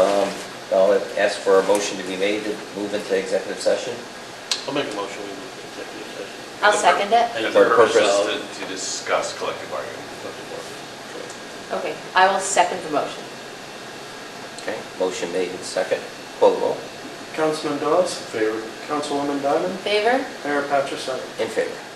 Um, ask for a motion to be made to move into executive session. I'll make a motion, we move to executive session. I'll second it. And And the the purpose purpose- is to to discuss collective bargaining. Okay, I will second the motion. Okay, motion made and second. Call the roll. Councilman Dawes, Favor? Councilwoman Diamond, In favor? Mayor Patricek. In favor.